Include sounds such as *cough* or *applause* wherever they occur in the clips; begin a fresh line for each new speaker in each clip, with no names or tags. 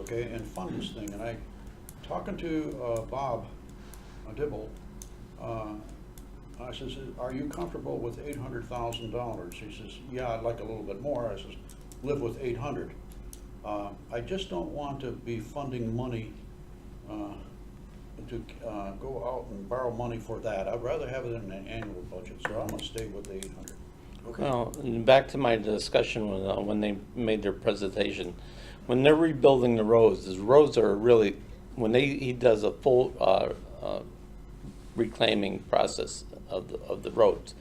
okay, and funds thing, and I, talking to uh, Bob uh, Dibble, uh, I says, are you comfortable with eight hundred thousand dollars? He says, yeah, I'd like a little bit more. I says, live with eight hundred. Uh, I just don't want to be funding money uh, to uh, go out and borrow money for that. I'd rather have it in an annual budget, so I'm gonna stay with the eight hundred.
Well, and back to my discussion when, uh, when they made their presentation, when they're rebuilding the roads, these roads are really, when they, he does a full, uh, uh, reclaiming process of, the of the roads,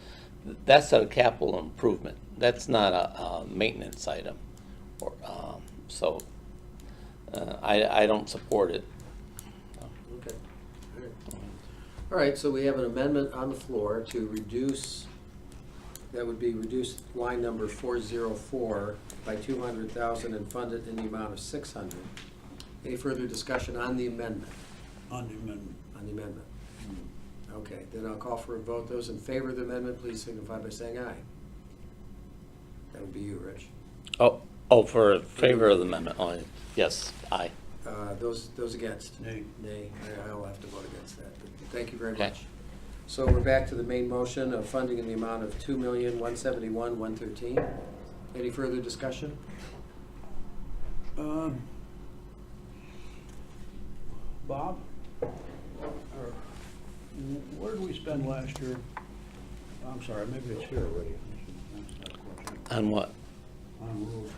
that's a capital improvement. That's not a, a maintenance item, or, um, so, uh, I, I don't support it.
Okay. All right. All right, so we have an amendment on the floor to reduce, that would be reduced line number four zero four by two hundred thousand and fund it in the amount of six hundred. Any further discussion on the amendment,
On the amendment.
on the amendment? Okay, then I'll call for a vote. Those in favor of the amendment, please signify by saying aye. That would be you, Rich.
Oh, oh, for favor of the amendment, oh, yes, aye.
Uh, Those, those against?
Nay.
Nay, I- I'll have to vote against that, but thank you very
Okay.
much. So we're back to the main motion of funding in the amount of two million, one seventy-one, one thirteen. Any further discussion?
Um, Bob, or wh- where did we spend last year? I'm sorry, maybe it's here already. That's not a question.
On what?
On road.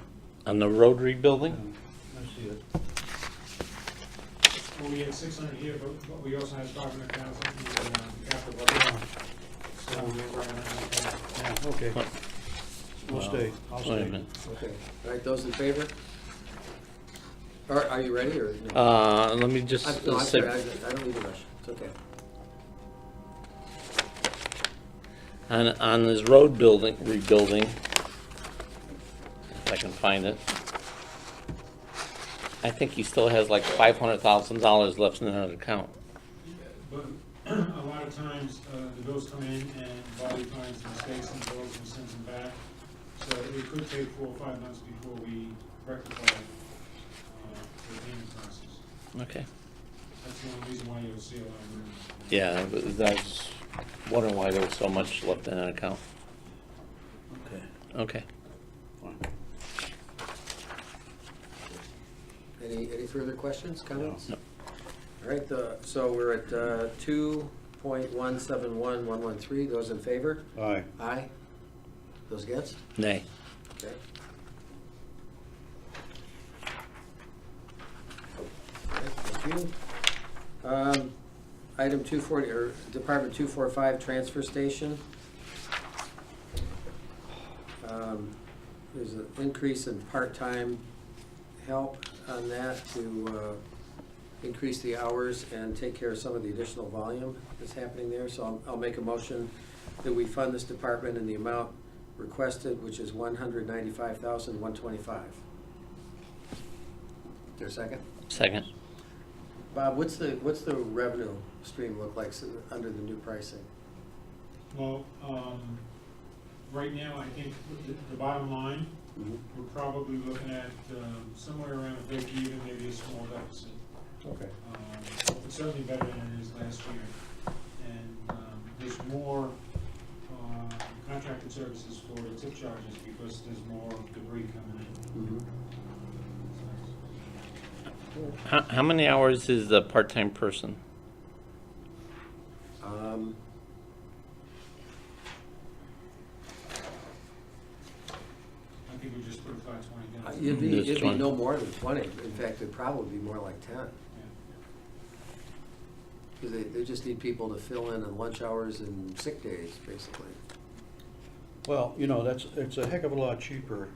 On the road rebuilding?
Yeah, Uh, I see it.
Well, we had six hundred here, but, but we also had five hundred thousand in uh, capital budget. So we were around that.
Yeah, okay. We'll stay, I'll
Wait a
stay.
minute.
Okay, all right, those in favor? Are, are you ready, or? no?
Uh, let me
Mm-hmm. I-
just
No, I'm
say,
sorry, I I don't need a rush, it's okay.
on, on this road building, rebuilding, if I can find it. I think he still has like five hundred thousand dollars left in that account.
uh, But *clears throat* a lot of times, uh, the bills come in and Bobby finds mistakes in the bills and sends them back. So it could take four or five months before we rectify, uh, the payment process.
Okay.
That's the only reason why you'll see a lot of movement.
Yeah, but that's, wondering why there was so much left in that account.
Okay,
Okay.
fine.
Any, any further questions, comments?
No.
All right, the, so we're at uh, two point one seven one, one one three, those in favor?
Aye.
Aye? Those against?
Nay.
Okay. Okay, Thank you. Um, Item 240, or Department 245, Transfer Station. Um, There's an increase in part-time help on that to uh, increase the hours and take care of some of the additional volume that's happening there. So I'll- I'll make a motion that we fund this department in the amount requested, which is one hundred ninety-five thousand, one twenty-five. There a second?
Second.
Bob, what's the, what's the revenue stream look like s- under the new pricing?
Well, um, right now, I think the, the bottom line, we're probably looking at, um, somewhere around a break even, maybe a small deficit.
Okay.
Um, But certainly better than it is last year. And, um, there's more, uh, contracted services for the tip charges because there's more debris coming in.
Mm-hmm.
How, how many hours is the part-time person?
Um,
I think we just put a five twenty down.
it'd be,
Just
it'd be
20.
no more than twenty. In fact, it'd probably be more like ten. Because they, they just need people to fill in on lunch hours and sick days, basically.
Well, you know, that's, it's a heck of a lot cheaper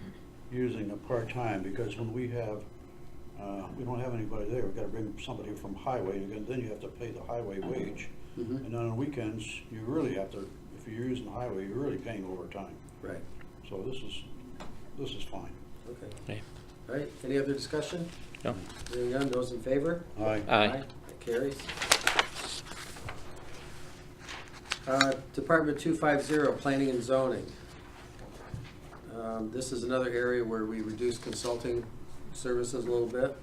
using a part-time, because when we have, uh, we don't have anybody there, we've gotta bring somebody from highway, and then- then you have to pay the highway wage.
Mhm.
And on weekends, you really have to, if you're using the highway, you're really paying overtime.
Right.
So this is, this is fine.
Okay.
Okay.
All right, any other discussion?
No?
Hearing none, those in favor?
Aye.
Aye.
That carries. Uh, Department 250, Planning and Zoning. Um, This is another area where we reduce consulting services a little bit.